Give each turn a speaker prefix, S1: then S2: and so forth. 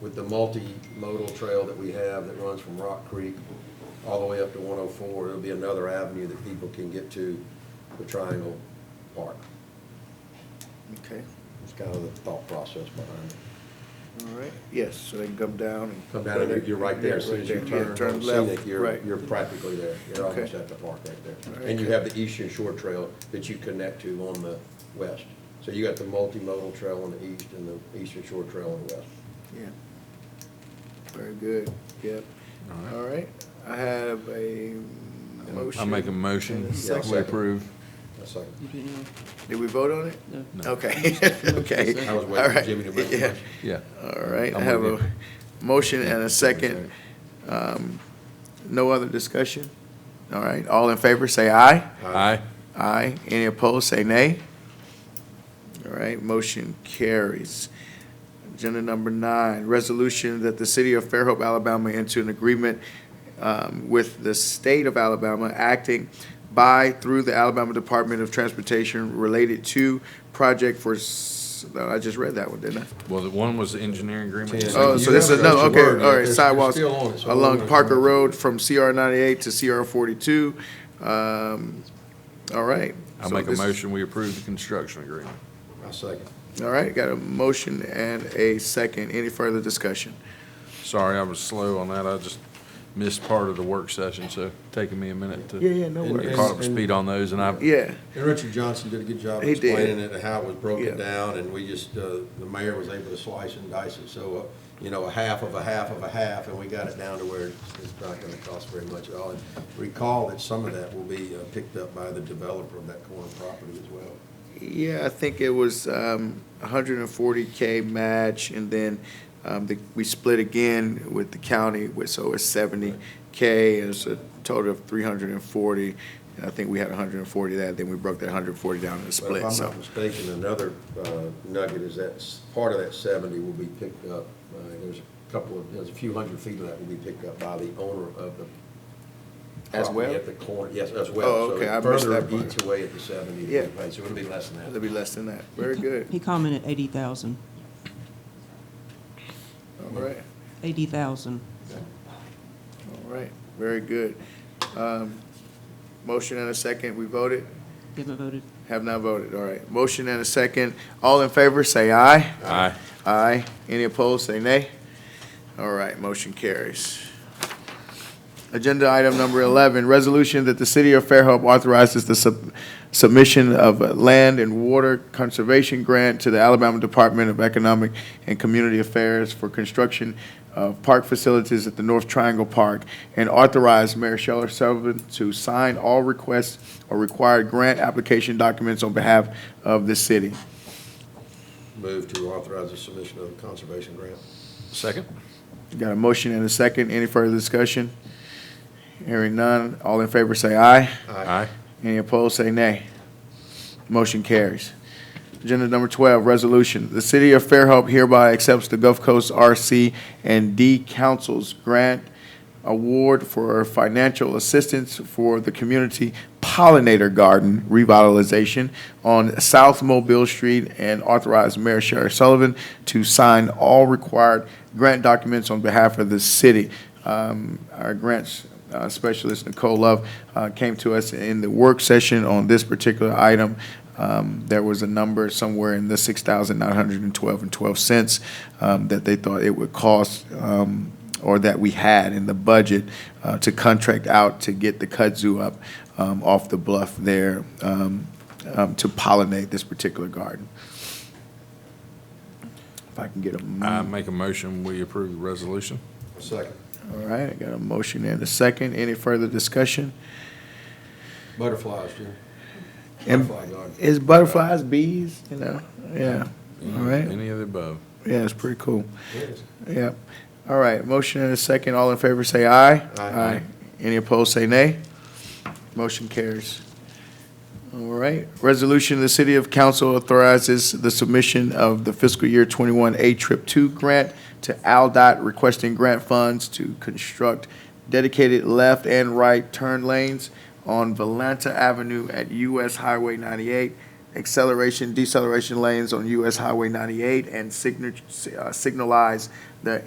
S1: with the multimodal trail that we have that runs from Rock Creek all the way up to 104, it'll be another avenue that people can get to the Triangle Park.
S2: Okay,
S1: It's kind of the thought process behind it.
S2: all right, yes, so they can come down and.
S1: Come down and you're- you're right there, as soon as you
S2: Yeah,
S1: turn
S2: right there.
S1: on
S2: Yeah, left,
S1: scenic, you're,
S2: right.
S1: you're practically there. You're
S2: Okay.
S1: almost at the park right there.
S2: Right.
S1: And you have the Eastern Shore Trail that you connect to on the west. So you got the multimodal trail on the east and the Eastern Shore Trail on the west.
S2: Yeah. Very good, yep. All right, I have a motion.
S3: I make a motion,
S2: and a second.
S3: we approve.
S1: That's like,
S4: You didn't know?
S2: Did we vote on it?
S4: No.
S3: No.
S2: Okay, okay.
S1: I was
S2: All
S1: waiting for
S2: right.
S1: Jimmy to make the
S2: Yeah.
S1: motion.
S3: Yeah.
S2: All right, I
S3: I'm
S2: have
S3: with
S2: a motion and a second. Um, No other discussion? All right, all in favor, say aye.
S3: Aye.
S2: Aye. Any opposed, say nay. All right, motion carries. Agenda number nine, resolution that the city of Fairhope, Alabama enter an agreement um, with the state of Alabama acting by, through the Alabama Department of Transportation related to project for, s- no, I just read that one, didn't I?
S3: Well, the one was the engineering agreement.
S1: Yeah.
S2: Oh,
S1: You
S2: so this
S1: have to
S2: is, no,
S1: actually word
S2: okay,
S1: it.
S2: all right,
S1: It's- it's
S2: sidewalks
S1: still on it, so we're
S2: along
S1: gonna-
S2: Parker Road from CR ninety-eight to CR forty-two. Um, all right.
S3: I
S2: So
S3: make a
S2: this is-
S3: motion, we approve the construction agreement.
S1: I second.
S2: All right, got a motion and a second. Any further discussion?
S3: Sorry, I was slow on that. I just missed part of the work session, so taking me a minute
S2: Yeah,
S3: to
S2: yeah, no
S1: And-
S3: get
S2: worries.
S3: caught up to speed on those, and I,
S2: Yeah,
S1: And Richard Johnson did a good job
S2: He did.
S1: explaining it, and how it was broken
S2: Yeah.
S1: down, and we just, uh, the mayor was able to slice and dice it, so, uh, you know, a half of a half of a half, and we got it down to where it's it's not gonna cost very much at all. And Recall that some of that will be uh, picked up by the developer of that corner property as well.
S2: yeah, I think it was um, hundred and forty K match, and then um, the- we split again with the county, with- so it's seventy K, it's a total of three hundred and forty. And I think we had hundred and forty that, then we broke that hundred and forty down in
S1: But
S2: the
S1: if
S2: split,
S1: I'm
S2: so.
S1: not mistaken, another uh, nugget is that s- part of that seventy will be picked up. uh, There's a couple of, there's a few hundred feet of that will be picked up by the owner of the.
S2: As
S1: property
S2: well?
S1: At the corner, yes, as well.
S2: Oh,
S1: So
S2: okay,
S1: it
S2: I missed that
S1: Further
S2: part.
S1: eats away at the seventy
S2: Yeah.
S1: that we paid, so it'll be less than
S2: It'll
S1: that.
S2: be less than that. Very good.
S4: He commented eighty thousand.
S2: All right,
S4: Eighty thousand.
S2: all right, very good. Um, Motion and a second, we voted?
S4: Haven't voted.
S2: Have not voted, all right. Motion and a second. All in favor, say aye.
S3: Aye.
S2: Aye. Any opposed, say nay. All right, motion carries. Agenda item number 11, resolution that the city of Fairhope authorizes the sub- submission of a land and water conservation grant to the Alabama Department of Economic and Community Affairs for construction of park facilities at the North Triangle Park, and authorize Mayor Sheller Sullivan to sign all requests or required grant application documents on behalf of the city.
S1: Move to authorize the submission of the conservation grant.
S3: Second?
S2: Got a motion and a second. Any further discussion? Hearing none. All in favor, say aye.
S3: Aye.
S2: Any opposed, say nay. Motion carries. Agenda number 12, resolution. The City of Fairhope hereby accepts the Gulf Coast RC and D Council's grant award for financial assistance for the community pollinator garden revitalization on South Mobile Street and authorize Mayor Sherri Sullivan to sign all required grant documents on behalf of the city. Um, Our grants uh, specialist, Nicole Love, uh, came to us in the work session on this particular item. Um, There was a number somewhere in the $6,912 and 12 cents um, that they thought it would cost um, or that we had in the budget uh, to contract out to get the kudzu up um, off the bluff there um, um, to pollinate this particular garden. If I can get a.
S3: I make a motion, we approve the resolution.
S1: Second.
S2: All right, I got a motion and a second. Any further discussion?
S1: Butterflies, Jim.
S2: And
S1: Butterfly garden.
S2: it's butterflies, bees, you know? Yeah, all right.
S3: Any of the above.
S2: Yeah, it's pretty cool.
S1: Yes.
S2: Yeah. All right, motion and a second. All in favor, say aye.
S1: Aye.
S2: Any opposed, say nay. Motion carries. All right. Resolution, the City of Council authorizes the submission of the fiscal year 21 A Trip 2 grant to AlDOT requesting grant funds to construct dedicated left and right turn lanes on Valanta Avenue at US Highway 98, acceleration, deceleration lanes on US Highway 98, and signa- uh, signalized